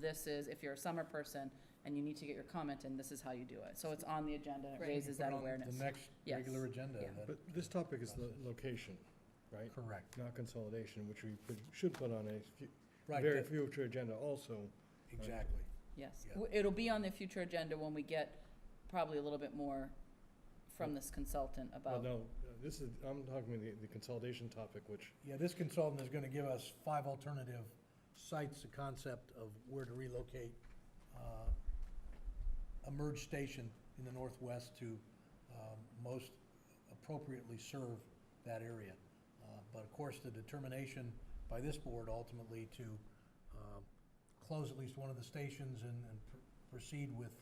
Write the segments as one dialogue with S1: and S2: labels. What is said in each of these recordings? S1: this is, if you're a summer person and you need to get your comment in, this is how you do it. So it's on the agenda, and it
S2: Right.
S1: raises
S3: Put
S1: that
S3: on
S1: awareness.
S3: The next
S1: Yes.
S3: regular agenda
S1: Yeah.
S3: then.
S4: But this topic is the location, right?
S3: Correct,
S4: Not consolidation, which we put- should put on a fu-
S3: right,
S4: very
S3: that-
S4: future agenda also.
S3: exactly.
S1: Yes.
S3: Yeah.
S1: W- It'll be on the future agenda when we get probably a little bit more from this consultant
S4: Well,
S1: about,
S4: no, uh, this is, I'm talking about the- the consolidation topic, which
S3: Yeah, this consultant is gonna give us five alternative sites, the concept of where to relocate, uh, a merge station in the northwest to, um, most appropriately serve that area. Uh, But of course, the determination by this board ultimately to, um, close at least one of the stations and, and pr- proceed with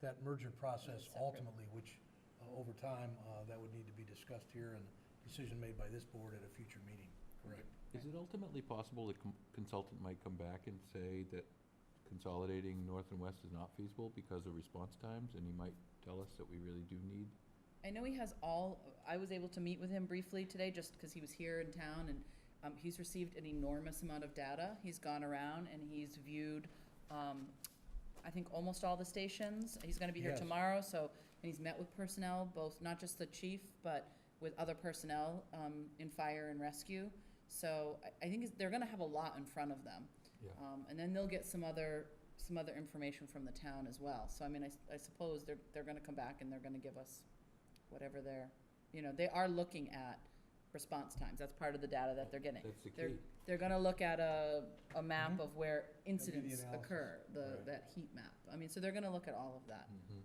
S3: that merger process
S1: Separate.
S3: ultimately, which, uh, over time, uh, that would need to be discussed here and decision made by this board at a future meeting. Correct.
S5: Is it ultimately possible the com- consultant might come back and say that consolidating north and west is not feasible because of response times, and he might tell us that we really do need?
S1: I know he has all, I was able to meet with him briefly today just because he was here in town and um, he's received an enormous amount of data. He's gone around and he's viewed, um, I think, almost all the stations. He's going to be here
S3: Yes.
S1: tomorrow, so, and he's met with personnel, both, not just the chief, but with other personnel um, in fire and rescue. So I- I think it's- they're going to have a lot in front of them.
S5: Yeah.
S1: Um, And then they'll get some other, some other information from the town as well. So I mean, I s- I suppose they're, they're going to come back and they're going to give us whatever they're, you know, they are looking at response times. That's part of the data that they're getting.
S5: That's the
S1: They're,
S5: key.
S1: they're gonna look at a, a map
S3: Mhm.
S1: of where incidents
S3: analysis.
S1: occur, the,
S3: Right.
S1: that heat map. I mean, so they're gonna look at all of that.
S5: Mhm.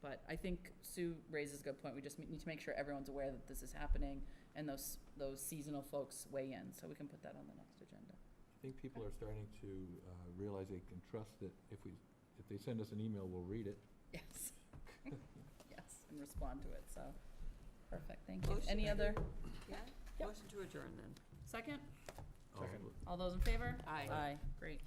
S1: But I think Sue raises a good point. We just need to make sure everyone's aware that this is happening and those, those seasonal folks weigh in, so we can put that on the next agenda.
S5: I think people are starting to uh, realize they can trust that if we, if they send us an email, we'll read it.
S1: Yes. Yes, and respond to it, so, perfect, thank you.
S2: Motion.
S1: Any other,
S2: Yeah,
S1: Yep.
S2: motion to adjourn then.
S1: second?
S5: All
S4: Second.
S5: of-
S1: All those in favor?
S2: Aye.
S1: Aye, great.